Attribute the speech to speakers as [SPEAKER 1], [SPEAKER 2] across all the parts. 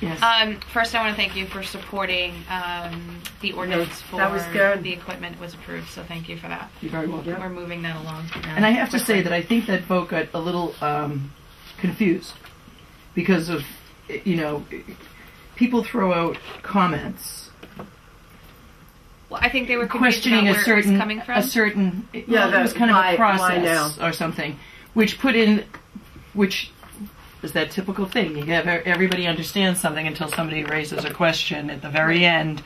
[SPEAKER 1] Yes.
[SPEAKER 2] Um, first, I want to thank you for supporting um, the ordinance for
[SPEAKER 1] that was good.
[SPEAKER 2] the equipment was approved. So thank you for that.
[SPEAKER 1] You're very welcome.
[SPEAKER 2] We're moving that along. now
[SPEAKER 1] And I have to say
[SPEAKER 2] quickly.
[SPEAKER 1] that I think that vote got a little um, confused because of, you know, people throw out comments
[SPEAKER 2] well, I think they were confused
[SPEAKER 1] questioning
[SPEAKER 2] about
[SPEAKER 1] a
[SPEAKER 2] where it was
[SPEAKER 1] certain
[SPEAKER 2] coming from.
[SPEAKER 1] a certain yeah, it
[SPEAKER 3] that-
[SPEAKER 1] was kind of
[SPEAKER 3] why-
[SPEAKER 1] a
[SPEAKER 3] why
[SPEAKER 1] process or something, which put in, which is that typical thing. You have e, everybody understands something until somebody raises a question at the very end,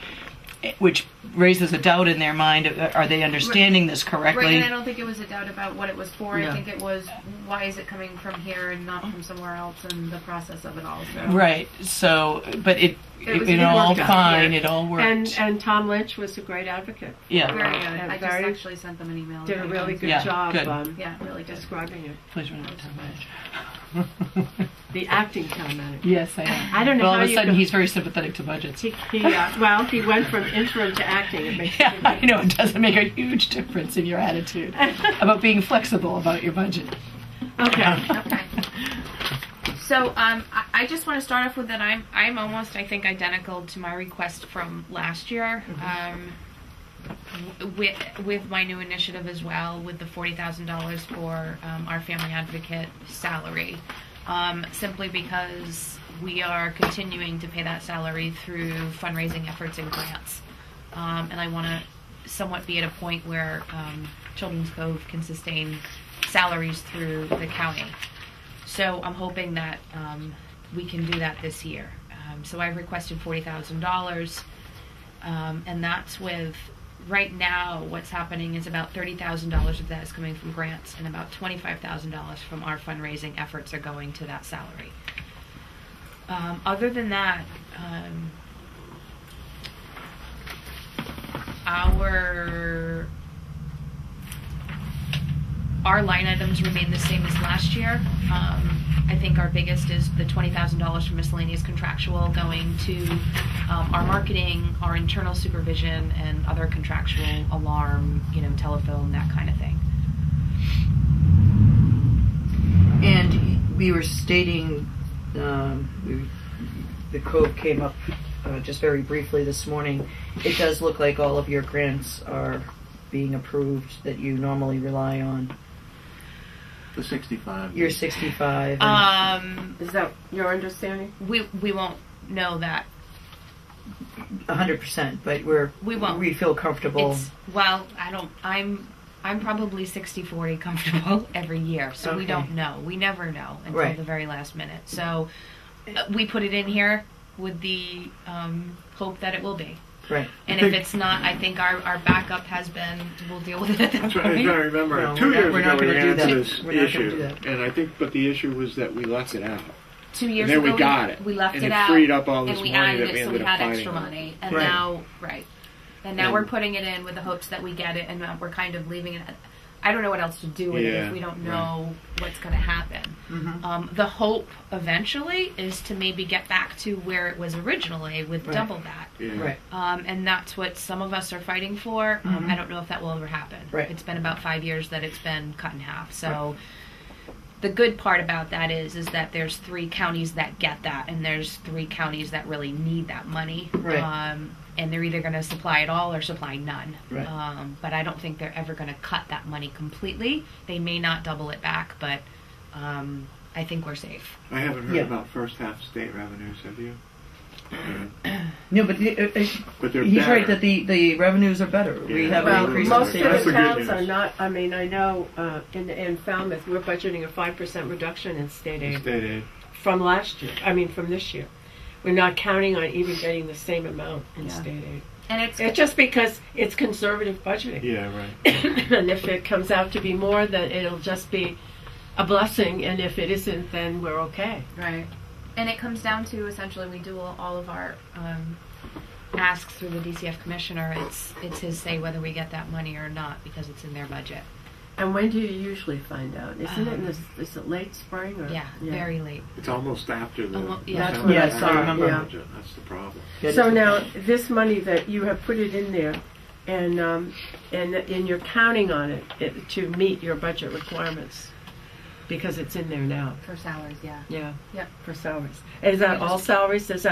[SPEAKER 1] eh, which raises a doubt in their mind: uh, Are they understanding this correctly?
[SPEAKER 2] Right, and I don't think it was a doubt about what it was for.
[SPEAKER 1] Yeah.
[SPEAKER 2] I think it was why is it coming from here and not from somewhere else, and the process of it all. So.
[SPEAKER 1] Right. So, but it,
[SPEAKER 2] It
[SPEAKER 1] it,
[SPEAKER 2] was-
[SPEAKER 1] you
[SPEAKER 2] it
[SPEAKER 1] know, all
[SPEAKER 3] worked out.
[SPEAKER 1] fine.
[SPEAKER 3] Yeah.
[SPEAKER 1] It all worked.
[SPEAKER 3] And, and Tom Lynch was a great advocate.
[SPEAKER 2] Very
[SPEAKER 1] yeah.
[SPEAKER 2] good.
[SPEAKER 3] And
[SPEAKER 2] I just
[SPEAKER 3] very-
[SPEAKER 2] actually sent them an email.
[SPEAKER 3] Did a really good
[SPEAKER 1] Yeah,
[SPEAKER 3] job
[SPEAKER 1] good.
[SPEAKER 3] um,
[SPEAKER 2] Yeah, really good.
[SPEAKER 3] describing it.
[SPEAKER 1] Please run out of time, Madge.
[SPEAKER 3] The acting town manager.
[SPEAKER 1] yes, I am.
[SPEAKER 3] I don't know
[SPEAKER 1] But all
[SPEAKER 3] how
[SPEAKER 1] of a
[SPEAKER 3] you
[SPEAKER 1] sudden,
[SPEAKER 3] go-
[SPEAKER 1] he's very sympathetic to budgets.
[SPEAKER 3] He, he, uh, well, he went from interim to acting. It makes
[SPEAKER 1] Yeah, I know it doesn't make a huge difference in your attitude about being flexible about your budget.
[SPEAKER 3] Okay.
[SPEAKER 2] Okay. So um, I, I just want to start off with that I'm I'm almost I think identical to my request from last year. Um, w- with with my new initiative as well, with the forty thousand dollars for um, our family advocate salary, um, simply because we are continuing to pay that salary through fundraising efforts and grants, um, and I want to somewhat be at a point where um, Children's Cove can sustain salaries through the county. So I'm hoping that um, we can do that this year. Um, so I've requested forty thousand dollars, um, and that's with right now what's happening is about thirty thousand dollars of that is coming from grants, and about twenty-five thousand dollars from our fundraising efforts are going to that salary. Um, other than that, um, our our line items remain the same as last year. Um, I think our biggest is the $20,000 for miscellaneous contractual going to um, our marketing, our internal supervision, and other contractual alarm, you know, telephone, that kind of thing.
[SPEAKER 1] And we were stating, um, we, the code came up uh, just very briefly this morning. It does look like all of your grants are being approved that you normally rely on.
[SPEAKER 4] The 65.
[SPEAKER 1] Your 65. and-
[SPEAKER 3] Uh,
[SPEAKER 2] Um,
[SPEAKER 3] Is that your understanding?
[SPEAKER 2] we, we won't know that.
[SPEAKER 1] hundred percent, but we're
[SPEAKER 2] We won't.
[SPEAKER 1] we feel comfortable.
[SPEAKER 2] It's, well, I don't, I'm, I'm probably 60 40 comfortable every year, so we
[SPEAKER 1] Okay.
[SPEAKER 2] don't know. We never know until
[SPEAKER 1] Right.
[SPEAKER 2] the very last minute. So uh, we put it in here with the um, hope that it will be.
[SPEAKER 1] right.
[SPEAKER 2] And if it's not, I think our, our backup has been, we'll deal with it at that
[SPEAKER 4] That's right. I'm trying to
[SPEAKER 2] point.
[SPEAKER 4] remember.
[SPEAKER 1] No,
[SPEAKER 4] Two
[SPEAKER 1] we're not-
[SPEAKER 4] years
[SPEAKER 1] we're not
[SPEAKER 4] ago, we
[SPEAKER 1] gonna
[SPEAKER 4] ran
[SPEAKER 1] do
[SPEAKER 4] into
[SPEAKER 1] that.
[SPEAKER 4] this
[SPEAKER 1] We're not gonna do
[SPEAKER 4] issue,
[SPEAKER 1] that.
[SPEAKER 4] and I think, but the issue was that we left it out.
[SPEAKER 2] Two years
[SPEAKER 4] then
[SPEAKER 2] ago,
[SPEAKER 4] we got it.
[SPEAKER 2] we left
[SPEAKER 4] And
[SPEAKER 2] it
[SPEAKER 4] it
[SPEAKER 2] out.
[SPEAKER 4] freed up all
[SPEAKER 2] and
[SPEAKER 4] this
[SPEAKER 2] we
[SPEAKER 4] money
[SPEAKER 2] added
[SPEAKER 4] that
[SPEAKER 2] it,
[SPEAKER 4] we
[SPEAKER 2] so
[SPEAKER 4] ended
[SPEAKER 2] we
[SPEAKER 4] up
[SPEAKER 2] had
[SPEAKER 4] finding
[SPEAKER 2] extra
[SPEAKER 4] out.
[SPEAKER 2] money. And
[SPEAKER 1] Right.
[SPEAKER 2] now, right. And now
[SPEAKER 4] And-
[SPEAKER 2] we're putting it in with the hopes that we get it, and uh, we're kind of leaving it. At, I don't know what else to do with it
[SPEAKER 4] Yeah,
[SPEAKER 2] if we don't
[SPEAKER 4] right.
[SPEAKER 2] know what's going to happen. Um, the hope eventually is to maybe get back to where it was originally with
[SPEAKER 1] Right.
[SPEAKER 2] double that.
[SPEAKER 4] Yeah.
[SPEAKER 1] Right.
[SPEAKER 2] Um, and that's what some of us are fighting for. Um, I don't know if that will ever happen.
[SPEAKER 1] Mm-hmm. Right.
[SPEAKER 2] It's been about five years that it's been cut in half. So the good part about that is is that there's three counties that get that, and there's three counties that really need that money.
[SPEAKER 1] Right.
[SPEAKER 2] Um, and they're either going to supply it all or supply none.
[SPEAKER 1] Right.
[SPEAKER 2] Um, but I don't think they're ever going to cut that money completely. They may not double it back, but um, I think we're safe.
[SPEAKER 4] I haven't heard
[SPEAKER 1] Yeah.
[SPEAKER 4] about first half state revenues, have you?
[SPEAKER 1] No, but the- uh, uh,
[SPEAKER 4] But they're
[SPEAKER 1] he's
[SPEAKER 4] better.
[SPEAKER 1] right that the the revenues are better. We
[SPEAKER 4] Yeah.
[SPEAKER 1] have an
[SPEAKER 3] Well,
[SPEAKER 1] increase.
[SPEAKER 4] increasing
[SPEAKER 3] most
[SPEAKER 1] in
[SPEAKER 3] of
[SPEAKER 4] rate.
[SPEAKER 1] sales.
[SPEAKER 4] That's
[SPEAKER 3] the
[SPEAKER 4] the good
[SPEAKER 3] towns
[SPEAKER 4] news.
[SPEAKER 3] are not, I mean, I know uh, in, in Falmouth, we're budgeting a 5% reduction in state aid
[SPEAKER 4] State aid.
[SPEAKER 3] from last year, I mean, from this year. We're not counting on even getting the same amount in
[SPEAKER 2] Yeah.
[SPEAKER 3] state aid.
[SPEAKER 2] And it's
[SPEAKER 3] It's just because it's conservative budgeting.
[SPEAKER 4] Yeah, right.
[SPEAKER 3] and if it comes out to be more, then it'll just be a blessing. And if it isn't, then we're okay.
[SPEAKER 2] Right. And it comes down to essentially we do all all of our um, asks through the DCF commissioner. It's it's his say whether we get that money or not because it's in their budget.
[SPEAKER 3] And when do you usually find out? Isn't it in this, is it late spring or?
[SPEAKER 2] Yeah, very late.
[SPEAKER 4] It's almost after the.
[SPEAKER 2] Almo- yeah.
[SPEAKER 3] That's what
[SPEAKER 1] I
[SPEAKER 4] after
[SPEAKER 1] saw,
[SPEAKER 4] the
[SPEAKER 1] remember.
[SPEAKER 4] budget. That's the problem.
[SPEAKER 1] That
[SPEAKER 3] So
[SPEAKER 1] is-
[SPEAKER 3] now this money that you have put it in there, and um, and and you're counting on it, it to meet your budget requirements, because it's in there now.
[SPEAKER 2] For salaries, yeah.
[SPEAKER 3] Yeah.
[SPEAKER 2] Yep.
[SPEAKER 3] For salaries. Is that all salaries? Does that